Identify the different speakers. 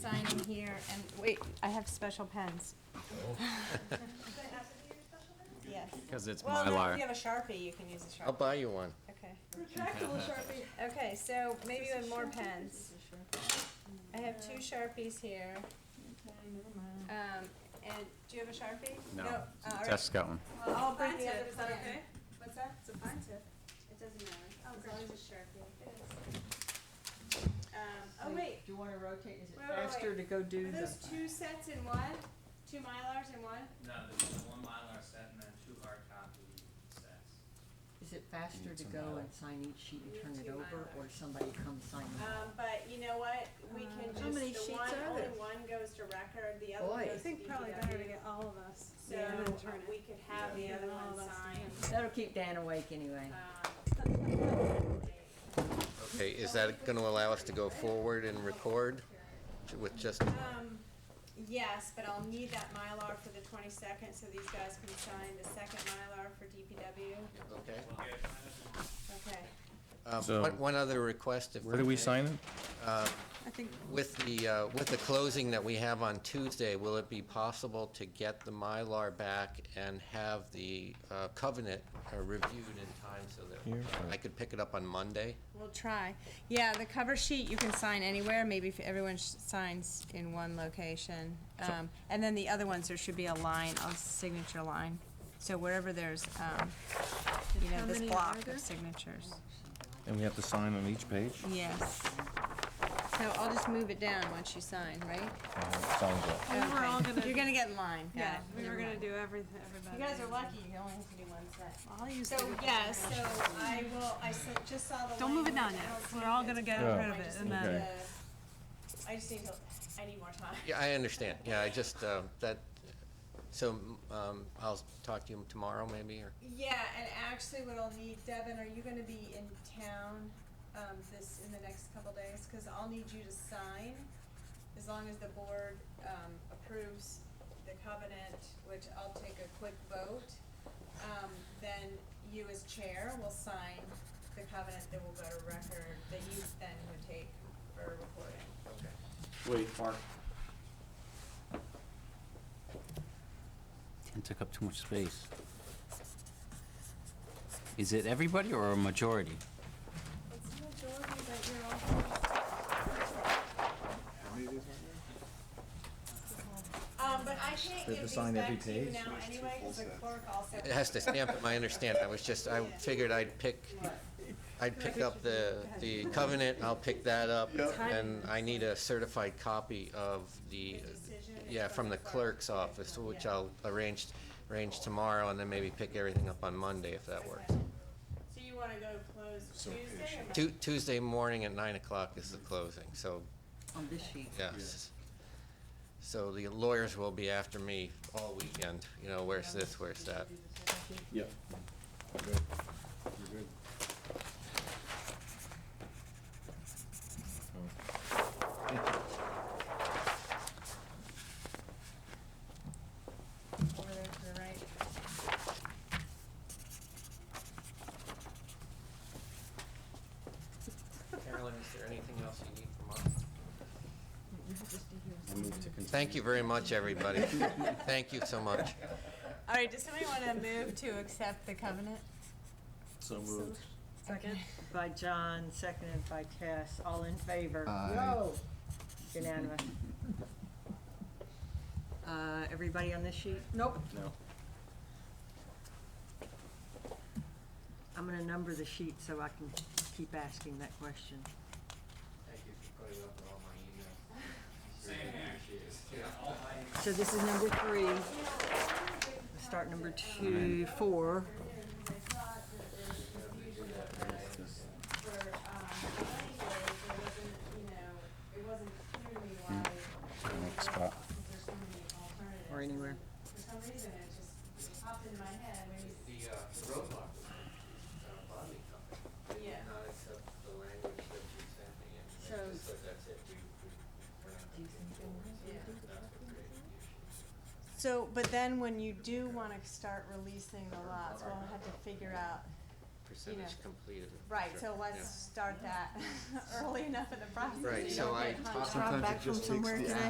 Speaker 1: signing here, and wait, I have special pens. Yes.
Speaker 2: Because it's
Speaker 1: Well, no, if
Speaker 2: Mylar.
Speaker 1: you have a Sharpie, you can use a
Speaker 3: I'll
Speaker 1: Sharpie.
Speaker 3: buy you one.
Speaker 1: Okay,
Speaker 4: Retractable Sharpie.
Speaker 1: okay, so maybe with more pens. I have two Sharpies here. Um, and, do you have a Sharpie?
Speaker 2: No,
Speaker 1: Uh, all right.
Speaker 2: Tess got one.
Speaker 1: Well, I'll
Speaker 4: It's a
Speaker 1: bring
Speaker 4: fine
Speaker 1: the
Speaker 4: tip,
Speaker 1: other
Speaker 4: is that
Speaker 1: plan.
Speaker 4: okay?
Speaker 1: What's that?
Speaker 4: It's a fine tip.
Speaker 1: It doesn't matter.
Speaker 4: As long as
Speaker 1: it's Sharpie. Um, oh, wait,
Speaker 5: Do you wanna rotate, is it
Speaker 1: Wait, wait,
Speaker 5: faster to go do
Speaker 1: are
Speaker 5: the?
Speaker 1: those two sets in one? Two Mylars in one?
Speaker 6: No, there's just one Mylar set and then two hard copy sets.
Speaker 5: Is it faster to go and sign each sheet
Speaker 1: We
Speaker 5: and turn
Speaker 1: need
Speaker 5: it
Speaker 1: two
Speaker 5: over,
Speaker 1: Mylars.
Speaker 5: or somebody come sign it?
Speaker 1: Um, but you know what, we can
Speaker 5: Uh,
Speaker 1: just,
Speaker 5: how many
Speaker 1: the
Speaker 5: sheets
Speaker 1: one,
Speaker 5: are
Speaker 1: only
Speaker 5: there?
Speaker 1: one goes to record, the other one
Speaker 5: Boy.
Speaker 1: goes
Speaker 4: I
Speaker 5: I
Speaker 1: to DPW.
Speaker 4: think probably better to get all of us.
Speaker 1: So,
Speaker 4: and then turn
Speaker 1: um,
Speaker 4: it.
Speaker 1: we could have the other
Speaker 4: All
Speaker 1: one
Speaker 4: of us
Speaker 1: signed,
Speaker 5: That'll keep Dan awake anyway.
Speaker 1: um.
Speaker 3: Okay, is that gonna allow us to go forward and record with just,
Speaker 1: Um, yes, but I'll need that Mylar for the twenty-second, so these guys can sign the second Mylar for DPW,
Speaker 3: okay?
Speaker 6: We'll get,
Speaker 1: okay.
Speaker 3: Um,
Speaker 7: So-
Speaker 3: one, one other request if.
Speaker 7: Where do we sign it?
Speaker 5: I think.
Speaker 3: With the, uh, with the closing that we have on Tuesday, will it be possible to get the Mylar back and have the uh, covenant uh, reviewed in time so
Speaker 7: Here,
Speaker 3: that I could pick it up on Monday?
Speaker 1: We'll try. Yeah, the cover sheet you can sign anywhere, maybe if everyone sh- signs in one location. Um, and then the other ones, there should be a line, a signature line. So wherever there's, um, you know,
Speaker 4: how
Speaker 1: this
Speaker 4: many are
Speaker 1: block
Speaker 4: there?
Speaker 1: of signatures.
Speaker 7: And we have to sign on each page?
Speaker 1: Yes. So I'll just move it down once you sign, right?
Speaker 7: Uh, Sounds good.
Speaker 4: We were all
Speaker 1: Okay.
Speaker 4: gonna-
Speaker 1: You're gonna get in line, got
Speaker 4: Yeah,
Speaker 1: it.
Speaker 4: we
Speaker 1: Never
Speaker 4: were gonna
Speaker 1: mind.
Speaker 4: do everything, everybody.
Speaker 1: You guys are lucky, you only have to do one set.
Speaker 4: I'll use
Speaker 1: So,
Speaker 4: it.
Speaker 1: yes, so I will, I s- just saw the
Speaker 4: Don't move it down
Speaker 1: language. I
Speaker 4: yet.
Speaker 1: don't
Speaker 4: We're
Speaker 1: see
Speaker 4: all
Speaker 1: it.
Speaker 4: gonna get
Speaker 7: Yeah.
Speaker 4: rid of
Speaker 1: I
Speaker 4: it
Speaker 1: just
Speaker 4: and
Speaker 1: need
Speaker 4: then.
Speaker 7: Okay.
Speaker 1: to- I just need to, I need more time.
Speaker 3: Yeah, I understand. Yeah, I just, uh, that, so um, I'll talk to you tomorrow maybe, or?
Speaker 1: Yeah, and actually what I'll need, Devin, are you gonna be in town, um, this, in the next couple days? Cause I'll need you to sign, as long as the board, um, approves the covenant, which I'll take a quick vote. Um, then you as chair will sign the covenant that will go to record, that you then would take for recording.
Speaker 8: Wait, Mark,
Speaker 9: and took up too much space. Is it everybody or a majority?
Speaker 1: It's the majority, but you're all. Um, but I can't give these back to you now anyway, cause the clerk also.
Speaker 3: It has to stamp it, I understand, I was just, I figured I'd pick, I'd pick up the, the covenant, I'll pick that up, and I need a certified copy of the,
Speaker 1: The decision
Speaker 3: yeah,
Speaker 1: from
Speaker 3: from
Speaker 1: the
Speaker 3: the clerk's office, which I'll arrange, arrange tomorrow, and then maybe pick everything up on Monday, if that works.
Speaker 1: So you wanna go close Tuesday or? Monday?
Speaker 3: Tu- Tuesday morning at nine o'clock is the closing, so,
Speaker 5: Uh, On this sheet.
Speaker 3: yes. So the lawyers will be after me all weekend, you know, where's this, where's that?
Speaker 8: yeah.
Speaker 1: Over there to the right.
Speaker 3: Carolyn, is there anything else you need from us?
Speaker 9: I move to continue.
Speaker 3: Thank you very much, everybody. Thank you so much.
Speaker 1: All right, does somebody wanna move to accept the covenant?
Speaker 8: So moved.
Speaker 5: Second by John, seconded by Tess, all in favor? No. Unanimous. Uh, everybody on this sheet? Nope.
Speaker 8: No.
Speaker 5: I'm gonna number the sheet so I can keep asking that question.
Speaker 3: Thank you for putting up with all my
Speaker 6: same here, Yeah, all my
Speaker 5: So this is number three. Start number two, four.
Speaker 9: Next spot.
Speaker 5: Or anywhere.
Speaker 1: For some reason, it just popped into my head, maybe,
Speaker 3: The, uh, the roadblock was, uh, bonding company. They did
Speaker 1: Yeah.
Speaker 3: not accept the language that you sent me, and they
Speaker 5: So-
Speaker 3: just said, that's it, we, we, we're not gonna get forward." So that's what created the issue.
Speaker 1: So, but then when you do wanna start releasing the lots, we'll have to figure out
Speaker 3: percentage completed.
Speaker 1: Right,
Speaker 3: Sure.
Speaker 1: so let's start that early enough in the process.
Speaker 3: Right,
Speaker 1: you
Speaker 3: so
Speaker 1: don't
Speaker 3: I
Speaker 1: get hung
Speaker 3: talked
Speaker 1: up.
Speaker 2: Sometimes it just takes the